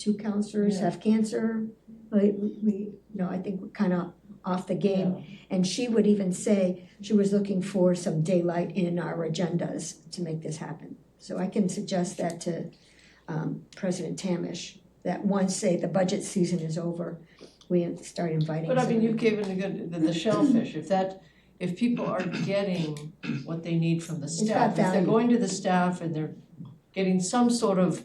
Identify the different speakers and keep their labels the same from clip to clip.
Speaker 1: two counselors
Speaker 2: Yeah.
Speaker 1: have cancer. Like, we, we, you know, I think we're kind of off the game.
Speaker 2: Yeah.
Speaker 1: And she would even say she was looking for some daylight in our agendas to make this happen. So I can suggest that to um, President Tamish, that once, say, the budget season is over, we start inviting.
Speaker 2: But I mean,
Speaker 1: some-
Speaker 2: you've given a good, the- the shellfish, if that, if people are getting what they need from the
Speaker 1: got
Speaker 2: staff, if they're
Speaker 1: value.
Speaker 2: going to the staff and they're getting some sort of,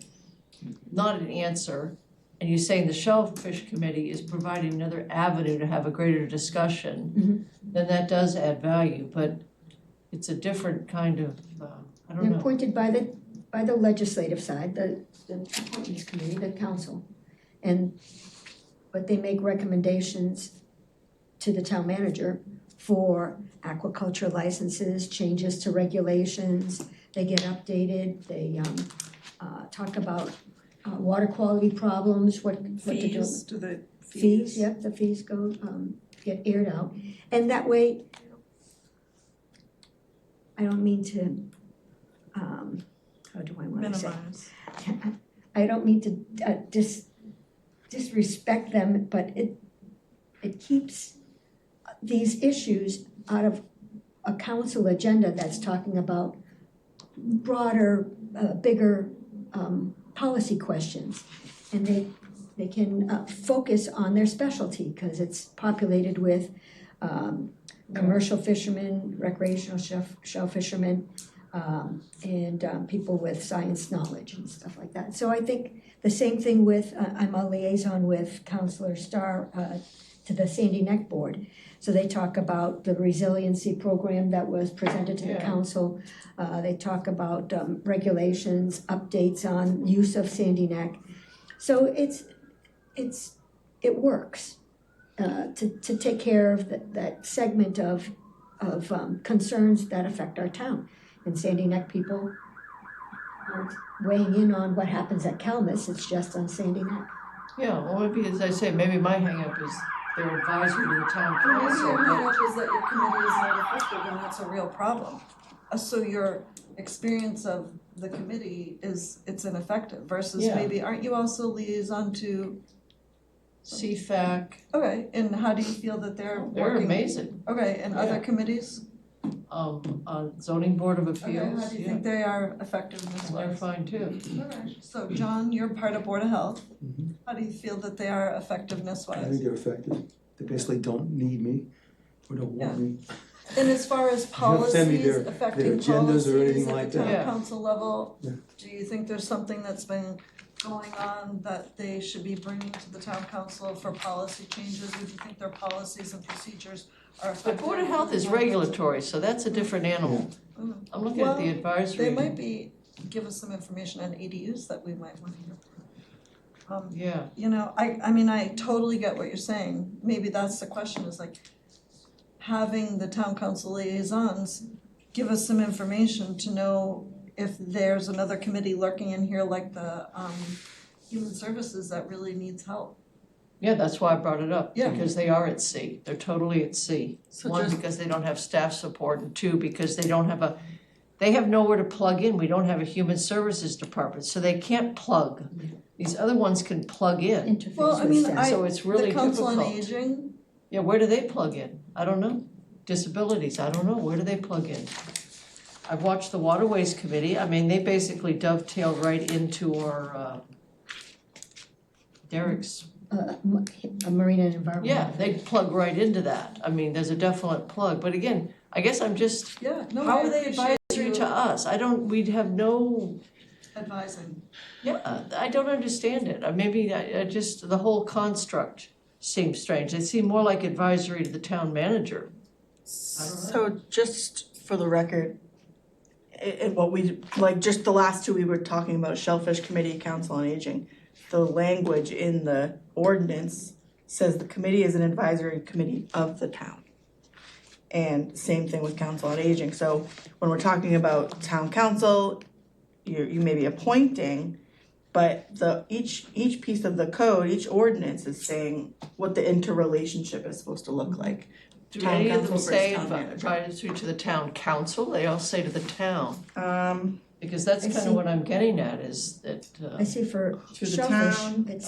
Speaker 2: not an answer, and you're saying the shellfish committee is providing another avenue to have a greater
Speaker 1: Mhm.
Speaker 2: discussion, then that does add value, but it's a different kind of, uh, I don't
Speaker 1: They're
Speaker 2: know.
Speaker 1: appointed by the, by the legislative side, the, the appointments committee, the council. And, but they make recommendations to the town manager for aquaculture licenses, changes to regulations. They get updated, they, um, uh, talk about, uh, water quality problems, what, what to do.
Speaker 3: Fees, do the fees?
Speaker 1: Fees, yep, the fees go, um, get aired out, and that way, I don't mean to, um, how do I wanna say?
Speaker 3: Minimize.
Speaker 1: I don't mean to, uh, dis, disrespect them, but it, it keeps these issues out of a council agenda that's talking about broader, uh, bigger, um, policy questions. And they, they can, uh, focus on their specialty, cause it's populated with, um, commercial fishermen, recreational chef, shell fishermen, um, and, um, people with science knowledge and stuff like that. So I think the same thing with, uh, I'm a liaison with Counselor Starr, uh, to the Sandy Neck Board. So they talk about the resiliency program that was presented to the
Speaker 2: Yeah.
Speaker 1: council. Uh, they talk about, um, regulations, updates on use of Sandy Neck. So it's, it's, it works, uh, to, to take care of that, that segment of, of, um, concerns that affect our town. And Sandy Neck people aren't weighing in on what happens at Calmus, it's just on Sandy Neck.
Speaker 2: Yeah, well, maybe, as I say, maybe my hangup is they're advisory to the town
Speaker 4: Well, Maybe
Speaker 2: council,
Speaker 4: your
Speaker 2: but-
Speaker 4: knowledge is that your committee is not effective and that's a real problem. Uh, So your experience of the committee is, it's ineffective versus
Speaker 2: Yeah.
Speaker 4: maybe, aren't you also liaison to,
Speaker 2: CFAC,
Speaker 4: okay, and how do you feel that they're
Speaker 2: they're
Speaker 4: working?
Speaker 2: amazing.
Speaker 4: Okay, and
Speaker 2: Yeah.
Speaker 4: other committees?
Speaker 2: Um, uh, zoning board of
Speaker 4: Okay, how
Speaker 2: appeals,
Speaker 4: do you
Speaker 2: yeah,
Speaker 4: think they are effective in this
Speaker 2: they're
Speaker 4: way?
Speaker 2: fine too.
Speaker 4: Okay, So John, you're part of Board of Health.
Speaker 5: Mhm.
Speaker 4: How do you feel that they are effectiveness
Speaker 5: I
Speaker 4: wise?
Speaker 5: think they're effective. They basically don't need me or don't want me.
Speaker 4: And as far as
Speaker 5: don't send me
Speaker 4: policies
Speaker 5: their- their
Speaker 4: affecting
Speaker 5: agendas or
Speaker 4: policies
Speaker 5: anything
Speaker 4: at
Speaker 5: like
Speaker 4: the
Speaker 5: that.
Speaker 2: Yeah.
Speaker 4: town council level,
Speaker 5: Yeah.
Speaker 4: do you think there's something that's been going on that they should be bringing to the town council for policy changes? Or do you think their policies and procedures are
Speaker 2: But
Speaker 4: effective?
Speaker 2: Board of Health is regulatory, so that's a different animal.
Speaker 4: Mm.
Speaker 2: I'm looking at the
Speaker 4: Well, They
Speaker 2: advisory,
Speaker 4: might be, give us some information on ADUs that we might wanna hear. Um,
Speaker 2: yeah,
Speaker 4: you know, I I mean, I totally get what you're saying, maybe that's the question is like having the town council liaisons give us some information to know if there's another committee lurking in here like the um human services that really needs help.
Speaker 2: yeah, that's why I brought it up,
Speaker 4: Yeah.
Speaker 2: because they are at sea, they're totally at sea.
Speaker 4: So
Speaker 2: One,
Speaker 4: just,
Speaker 2: because they don't have staff support, and two, because they don't have a, they have nowhere to plug in, we don't have a human services department, so they can't plug. These other ones can plug in,
Speaker 1: Interface
Speaker 4: Well, I
Speaker 1: with
Speaker 4: mean,
Speaker 1: staff.
Speaker 4: Mm-hmm. I-
Speaker 2: so it's really
Speaker 4: the
Speaker 2: difficult.
Speaker 4: council on aging,
Speaker 2: Yeah, where do they plug in? I don't know. Disabilities, I don't know, where do they plug in? I've watched the Waterways Committee, I mean, they basically dovetail right into our, uh, Derek's,
Speaker 1: Uh, m- a marina and environment.
Speaker 2: yeah, they plug right into that. I mean, there's a definite plug, but again, I guess I'm just,
Speaker 4: yeah, no,
Speaker 2: how
Speaker 4: I
Speaker 2: are they
Speaker 4: appreciate
Speaker 2: advisory to
Speaker 4: you
Speaker 2: us? I don't, we'd have no,
Speaker 4: advising,
Speaker 2: yeah, I don't understand it. Uh, Maybe I, I just, the whole construct seems strange. They seem more like advisory to the town manager.
Speaker 6: So just for the record, i- i- what we, like, just the last two we were talking about, Shellfish Committee, Council on Aging, the language in the ordinance says the committee is an advisory committee of the town. And same thing with Council on Aging, so when we're talking about town council, you you may be appointing, but the, each, each piece of the code, each ordinance is saying what the interrelationship is supposed to look like.
Speaker 2: Do
Speaker 6: Town
Speaker 2: any of them
Speaker 6: council versus
Speaker 2: say
Speaker 6: town
Speaker 2: advi-
Speaker 6: manager.
Speaker 2: advisory to the town council? They all say to the town,
Speaker 6: Um,
Speaker 2: because that's
Speaker 1: I
Speaker 2: kind
Speaker 1: see.
Speaker 2: of what I'm getting at is that, uh.
Speaker 1: I see for
Speaker 6: To the
Speaker 1: shellfish,
Speaker 6: town.
Speaker 1: it's